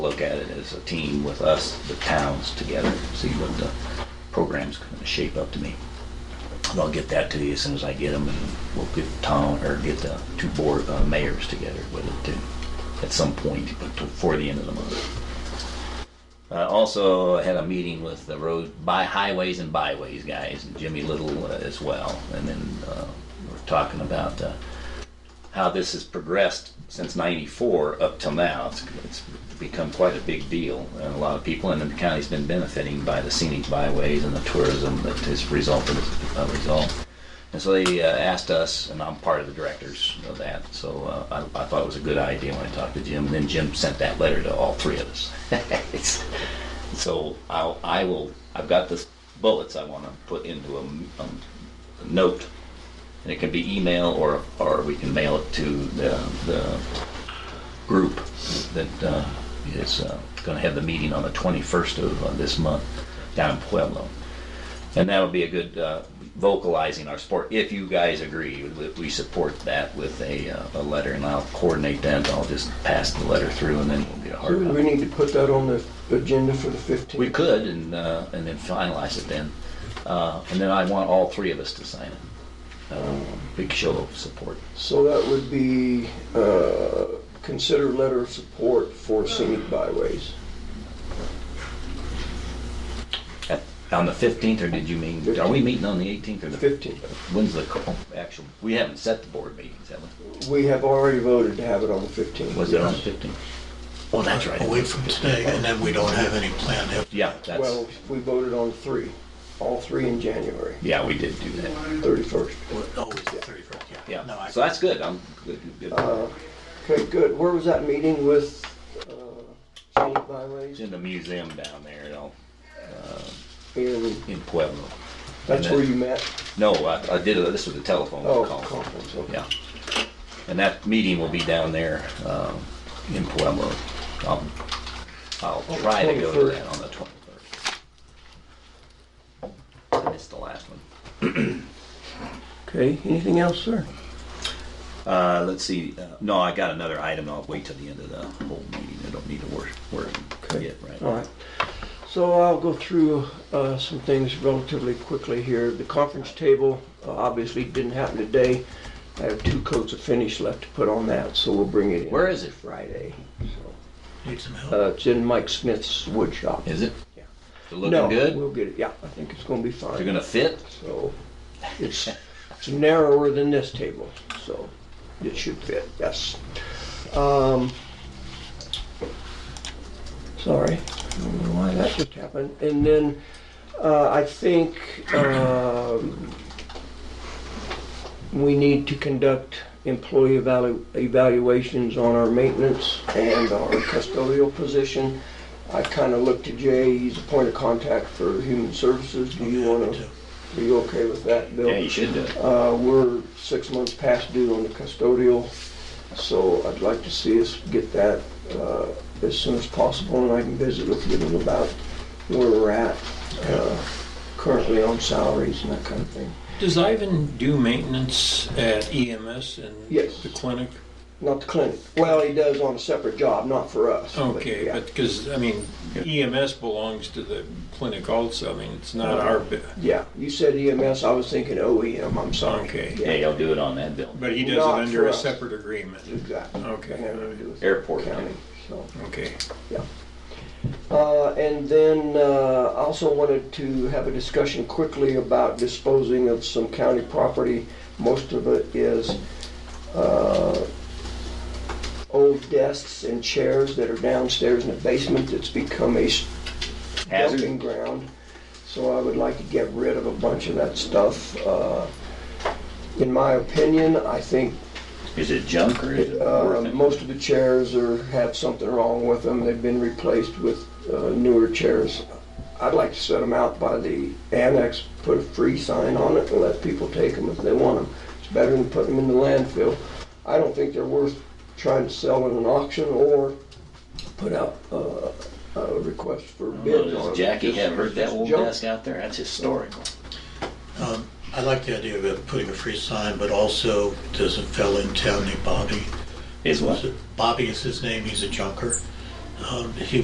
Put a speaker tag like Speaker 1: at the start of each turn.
Speaker 1: look at it as a team with us, the towns together, see what the program's gonna shape up to be. And I'll get that to you as soon as I get them, and we'll get town, or get the two board, uh, mayors together with it too, at some point before the end of the month. Uh, also, I had a meeting with the road, by highways and byways guys, and Jimmy Little uh, as well, and then, uh, we're talking about, uh, how this has progressed since 94 up till now. It's, it's become quite a big deal. And a lot of people in the county's been benefiting by the scenic byways and the tourism that has resulted as a result. And so they uh, asked us, and I'm part of the directors of that, so uh, I, I thought it was a good idea when I talked to Jim. And then Jim sent that letter to all three of us. It's- so I'll, I will, I've got the bullets I want to put into a, a note and it can be email or, or we can mail it to the, the group that uh, is going to have the meeting on the 21st of uh, this month down in Pueblo. And that would be a good uh, vocalizing our support, if you guys agree, that we support that with a, uh, a letter. And I'll coordinate that, I'll just pass the letter through and then we'll get a
Speaker 2: Do
Speaker 1: hard
Speaker 2: we
Speaker 1: copy.
Speaker 2: need to put that on the agenda for the 15th?
Speaker 1: We could and, uh, and then finalize it then. Uh, And then I want all three of us to sign it. Uh, Big show of support.
Speaker 2: So that would be, uh, consider letter of support for scenic byways.
Speaker 1: At- On the 15th, or did you mean, are we meeting on the 18th or the 15th?
Speaker 2: 15th.
Speaker 1: When's the co- actual, we haven't set the board meetings, have we?
Speaker 2: We have already voted to have it on the 15th.
Speaker 1: Was it on the 15th? Oh, that's
Speaker 3: a
Speaker 1: right.
Speaker 3: week from today, and then we don't have any plan to have.
Speaker 1: Yeah, that's,
Speaker 2: Well, we voted on three, all three in January,
Speaker 1: yeah, we did do that.
Speaker 2: 31st.
Speaker 3: Oh, it's the 31st, yeah. No,
Speaker 1: Yeah,
Speaker 3: I-
Speaker 1: so that's good, I'm good. good.
Speaker 2: Uh, Okay, good. Where was that meeting with uh, scenic byways?
Speaker 1: It's in the museum down there, you know,
Speaker 2: And
Speaker 1: in Pueblo.
Speaker 2: that's where you met?
Speaker 1: No, I, I did, a- this was a telephone
Speaker 2: Oh,
Speaker 1: call.
Speaker 2: conference, okay.
Speaker 1: Yeah. And that meeting will be down there, um, in Pueblo. I'll, I'll
Speaker 2: Oh,
Speaker 1: try to go to
Speaker 2: 21st.
Speaker 1: that on the twenty-third. I missed the last one.
Speaker 2: Okay, anything else, sir?
Speaker 1: Uh, let's see, uh, no, I got another item, I'll wait till the end of the whole meeting, I don't need to worry, worry
Speaker 2: Okay.
Speaker 1: yet, right?
Speaker 2: All right. So I'll go through uh, some things relatively quickly here. The conference table uh, obviously didn't happen today. I have two coats of finish left to put on that, so we'll bring it in.
Speaker 1: Where is it?
Speaker 2: Friday. So,
Speaker 3: Need some help.
Speaker 2: uh, It's in Mike Smith's wood shop.
Speaker 1: Is it?
Speaker 2: Yeah.
Speaker 1: Is it looking
Speaker 2: No,
Speaker 1: good?
Speaker 2: we'll get it, yeah, I think it's gonna be fine.
Speaker 1: They're gonna fit?
Speaker 2: So it's, it's narrower than this table, so it should fit, yes. Um, sorry, I don't know why that just happened. And then, uh, I think, um, we need to conduct employee evalu- evaluations on our maintenance and our custodial position. I kinda looked to Jay, he's a point of contact for human services. Do you wanna are you okay with that, Bill?
Speaker 1: Yeah, you should do it.
Speaker 2: Uh, we're six months past due on the custodial, so I'd like to see us get that, uh, as soon as possible, and I can visit with them about where we're at, uh, currently on salaries and that kind of thing.
Speaker 4: Does Ivan do maintenance at EMS and
Speaker 2: Yes.
Speaker 4: the clinic?
Speaker 2: Not the clinic, well, he does on a separate job, not for us. but
Speaker 4: Okay,
Speaker 2: yeah.
Speaker 4: but because, I mean, EMS belongs to the clinic also. I mean, it's not our, bit.
Speaker 2: Yeah, you said EMS, I was thinking OEM, I'm sorry.
Speaker 4: Okay.
Speaker 1: Yeah,
Speaker 2: Yeah,
Speaker 1: you'll do it on that bill.
Speaker 4: but he does
Speaker 2: Not
Speaker 4: it under
Speaker 2: for
Speaker 4: a
Speaker 2: us.
Speaker 4: separate agreement.
Speaker 2: exactly.
Speaker 4: Okay.
Speaker 2: Had nothing to do with
Speaker 1: Airport.
Speaker 2: County, so.
Speaker 4: Okay.
Speaker 2: Uh, And then uh, also wanted to have a discussion quickly about disposing of some county property. Most of it is uh, old desks and chairs that are downstairs in the basement that's become a s- dumping
Speaker 1: Hazard?
Speaker 2: ground. So I would like to get rid of a bunch of that stuff. Uh, In my opinion, I think
Speaker 1: Is it junk or is it
Speaker 2: uh,
Speaker 1: worth it?
Speaker 2: Most of the chairs are, have something wrong with them. They've been replaced with uh, newer chairs. I'd like to set them out by the annex, put a free sign on it and let people take them if they want them. It's better than putting them in the landfill. I don't think they're worth trying to sell in an auction or put out uh, a request for
Speaker 1: I don't
Speaker 2: bids
Speaker 1: know,
Speaker 2: on
Speaker 1: Does
Speaker 2: them.
Speaker 1: Jackie
Speaker 2: Just-
Speaker 1: have heard that
Speaker 2: just
Speaker 1: old
Speaker 2: junk.
Speaker 1: desk out there? That's historical.
Speaker 3: Um, I like the idea of putting a free sign, but also there's a fellow in town named Bobby.
Speaker 1: Is what?
Speaker 3: Bobby is his name, he's a junker. um, he